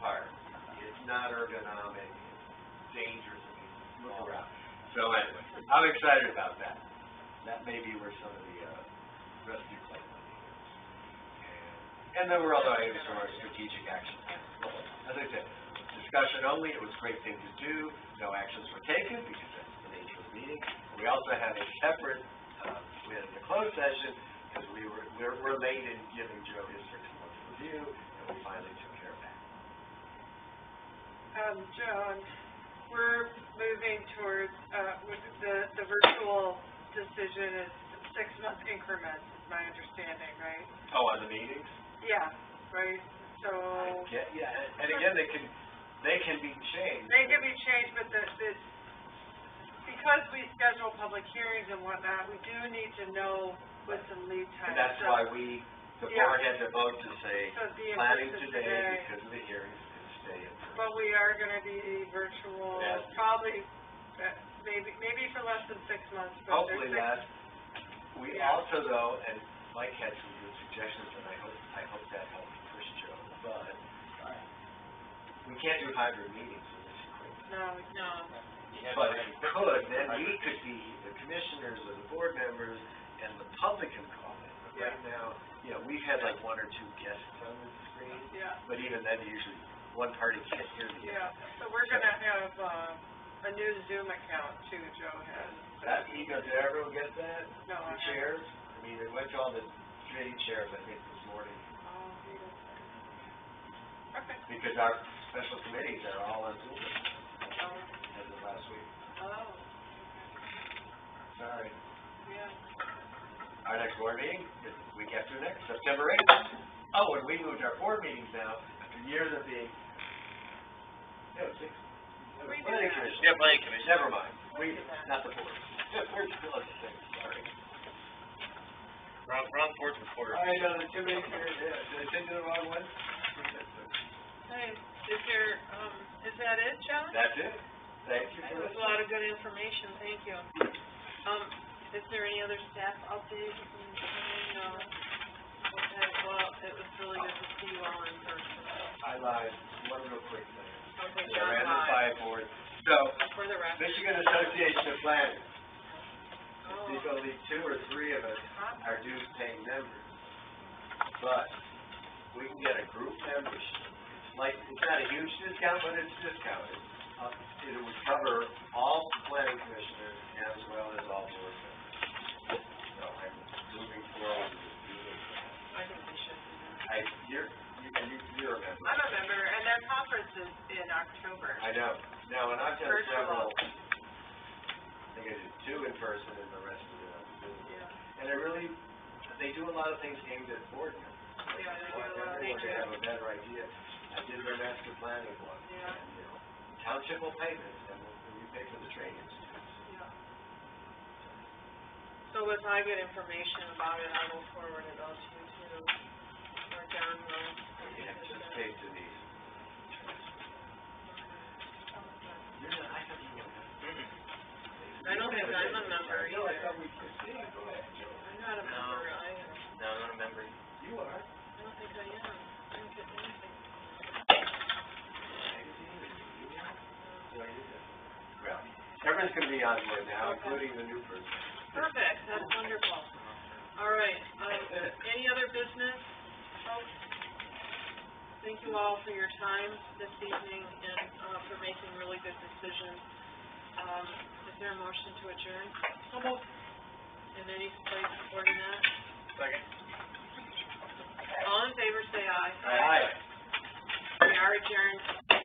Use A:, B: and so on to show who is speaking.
A: not ergonomic, dangerous and look around. So anyway, I'm excited about that. That may be where some of the, uh, rescue plan money is. And there were other items from our strategic action plan. Well, As I said, discussion only, it was a great thing to do, no actions were taken because that's the nature of meetings. We also had a separate, uh, we had a closed session because we were, we're, we're late in giving Joe his six-month review and we finally took care of that.
B: Um, Joan, we're moving towards, uh, with the, the virtual decision is six-month increments, is my understanding, right?
A: Oh, on the meetings?
B: Yeah, right, so,
A: I get- Yeah, and- and again, they can, they can be changed.
B: they can be changed, but the, the, because we schedule public hearings and whatnot, we do need to know what's in lead time.
A: And that's
B: so-
A: why we, the board had to vote to say,
B: So the
A: planning
B: emphasis
A: today because of the hearings and stay in.
B: But we are gonna be virtual,
A: Yes.
B: probably, uh, maybe, maybe for less than six months, but there's
A: Hopefully
B: six
A: that, we
B: Yeah.
A: also though, and Mike had some good suggestions, and I hope, I hope that helped push Joe, but, uh, we can't do hybrid meetings with this equipment.
B: No, no.
A: But if we could, then we could be the commissioners or the board members and the public can call in. But right now, you know, we've had like one or two guests on the screen,
B: Yeah,
A: but even then usually one party can't hear the other.
B: yeah, so we're gonna have, um, a new Zoom account too, Joe has.
A: That ego, did everyone get that?
B: No, I
A: The
B: haven't.
A: chairs? I mean, it went to all the three chairs, I think, this morning,
B: Oh, he doesn't. Okay,
A: because our special committees are all on Zoom
B: oh,
A: as of last week.
B: oh,
A: Sorry.
B: yeah.
A: Our next board meeting is week after next, September eighth. Oh, and we moved our board meetings now, after years of being, no, six. no,
B: We did
A: planning
B: that.
A: commission.
C: Yeah, planning commission.
A: Never mind, we,
B: We did that.
A: not the board. We're still at six, sorry.
C: Wrong, wrong board's reporter.
A: I know, the two minutes here, yeah, did I send you the wrong one?
B: Hey, is there, um, is that it, John?
A: That's it. Thank you for
B: That was a lot of good information, thank you. Um, is there any other staff updates? No. Okay, well, it was really good to see you all in person.
A: I lied, one real quick thing.
B: Okay,
A: Yeah,
B: John,
A: I ran the
B: bye.
A: five board. So,
B: For the record.
A: Michigan Association of Planners,
B: Oh,
A: there's only two or three of us
B: huh?
A: are dues paying members. But we can get a group membership. It's like, it's not a huge discount, but it's discounted. Uh, It would cover all planning commissioners as well as all board members. So I'm moving forward with doing that.
B: I think we should. do that.
A: I, you're, you, you- you're a member.
B: I'm a member, and their conference is in October.
A: I know. Now, and I've done
B: Virtual.
A: several, I think I did two in person and the rest of it on Zoom.
B: Yeah,
A: And I really, they do a lot of things aimed at board members.
B: Yeah, they do a lot of
A: Everyone to
B: things.
A: have a better idea. I did their master planning one.
B: Yeah.
A: and, you know, Township will pay this, and we'll- and we pay for the training.
B: yeah. So as I get information about it, I will forward it on to you too, or John will.
A: We anticipate to these. You're not, I thought you were.
B: I don't think I'm a member
A: No, I
B: either.
A: thought we could see. Go ahead, Joe.
B: I'm not a member either.
C: No, I don't remember.
A: You are.
B: I don't think I am. I don't get anything.
A: Well, everyone's gonna be on board now, including the new person.
B: Perfect, that's wonderful. All right, um, any other business, folks? Thank you all for your time this evening and, uh, for making really good decisions. Um, is there a motion to adjourn? In any place supporting that?
C: Second.
B: All in favor, say aye.
A: Aye.
B: We are adjourned.